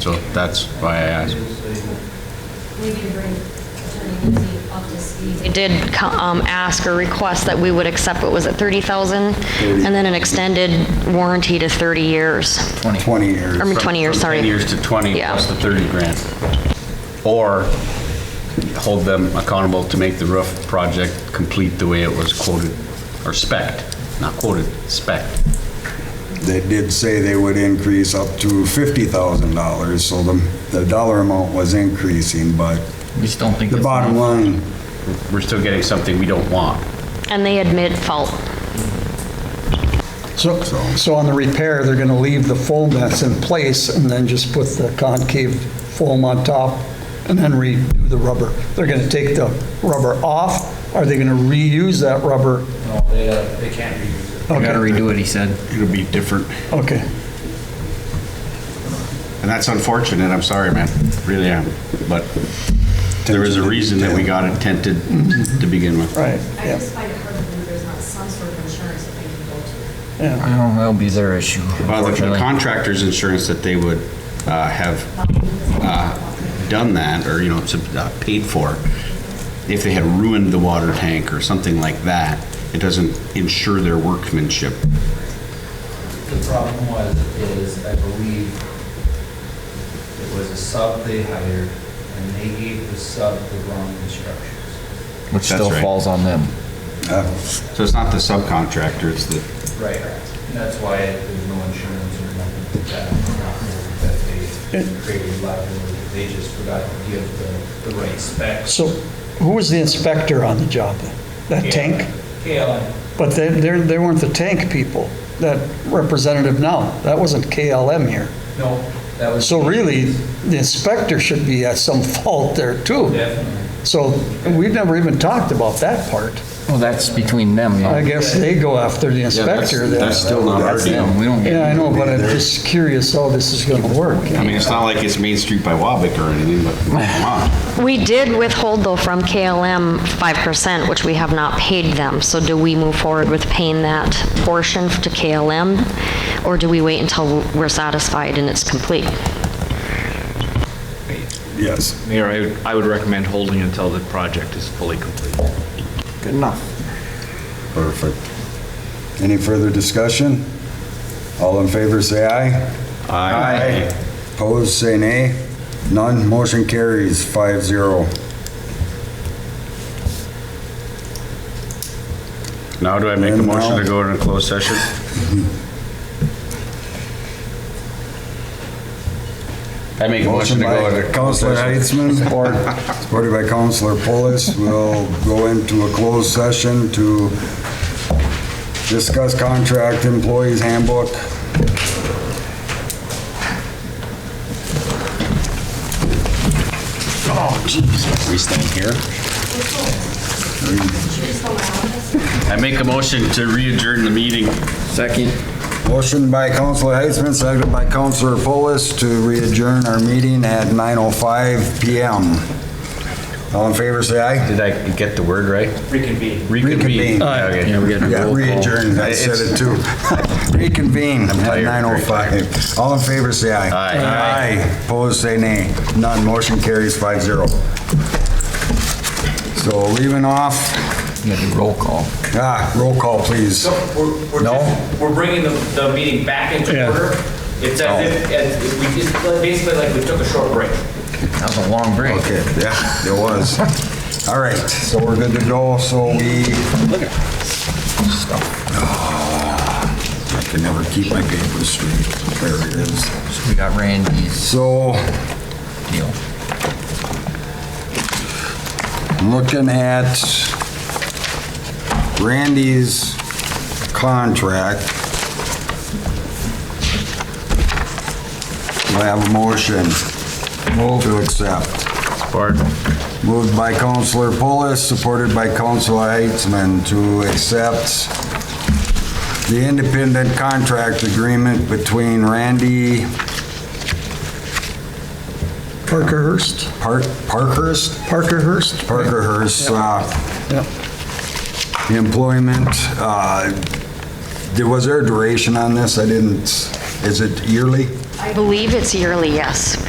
so that's why I asked. We can bring Attorney Lindsay up to speed. They did co- um, ask or request that we would accept, what was it, 30,000? And then an extended warranty to 30 years. 20 years. I mean, 20 years, From sorry. 10 years to 20, Yeah. plus the 30 grand. Or hold them accountable to make the roof project complete the way it was quoted, or spec'd, not quoted, spec'd. They did say they would increase up to $50,000, so the, the dollar amount was increasing, but We just don't think. the it's bottom enough. line, We're still getting something we don't want. And they admit fault. So, so on the repair, they're going to leave the foam that's in place and then just put the concave foam on top and then redo the rubber. They're going to take the rubber off? Are they going to reuse that rubber? No, they, uh, they can't reuse it. We gotta redo it, he said. It'll be different. Okay. And that's unfortunate, I'm sorry, man, really am. But there is a reason that we got it tented to begin with. Right, I yeah, just find it hard to believe there's not some sort of insurance that they can go to. yeah. Well, that'll be their issue, Well, the unfortunately. contractor's insurance that they would uh, have uh, done that, or, you know, sub- uh, paid for, if they had ruined the water tank or something like that, it doesn't insure their workmanship. The problem was, is I believe it was a sub they hired, and they gave the sub the wrong instructions. Which still That's right. falls on them. Uh, So it's not the subcontractor, it's the, Right. And that's why there's no insurance or nothing like that, not really that they created liability, they just forgot to give the, the right specs. So who was the inspector on the job then? That tank? KLM, But they, they're- they weren't the tank people, that representative now. That wasn't KLM here. no, that was. So really, the inspector should be at some fault there too. Definitely. So we've never even talked about that part. Well, that's between them, I though. guess they go after the inspector then. that's still not our That's deal. them, we don't Yeah, I get, know, but I'm just curious how this is going to work. I mean, it's not like it's Main Street by Wabick or anything, but come on. We did withhold, though, from KLM 5%, which we have not paid them. So do we move forward with paying that portion to KLM? Or do we wait until we're satisfied and it's complete? yes. Mayor, I would- I would recommend holding until the project is fully complete. good enough. Perfect. Any further discussion? All in favor, say aye. Aye. Opposed, say nay. None, motion carries five zero. Now do I make a And motion now- to go into closed session? I make a motion Motion to go by into Counselor Heitzman, supported by Counselor Polis. We'll go into a closed session to discuss contract employees handbook. Oh, We stand here. I make a motion to re-adjourn the meeting. Second. Motion by Counselor Heitzman, seconded by Counselor Polis to re-adjourn our meeting at 9:05 PM. All in favor, say aye. Did I get the word right? Reconvene. Reconvene. Reconvene. Yeah, okay. Yeah, we got Yeah, a roll call. re-adjourn, I said it too. Reconvene at 9:05. All in favor, say aye. Aye. Aye. Opposed, say nay. None, motion carries 5-0. So leaving off, We got a roll call. ah, roll call, please. So we're, we're just, we're bringing the, the meeting back into Yeah. order. It's as if, as if we just, basically like we took a short break. That was a long break. Okay, yeah, there was. All right, so we're good to go, so we... Oh, I can never keep my papers straight. There it is. We got Randy's So deal. looking at Randy's contract. Do I have a motion? Move. To accept. Support. Moved by Counselor Polis, supported by Counselor Heitzman to accept the independent contract agreement between Randy Parkerhurst, Park, Parkhurst? Parkerhurst? Parkerhurst, uh, Yeah. The employment, uh, there- was there a duration on this? I didn't, is it yearly? I believe it's yearly, yes.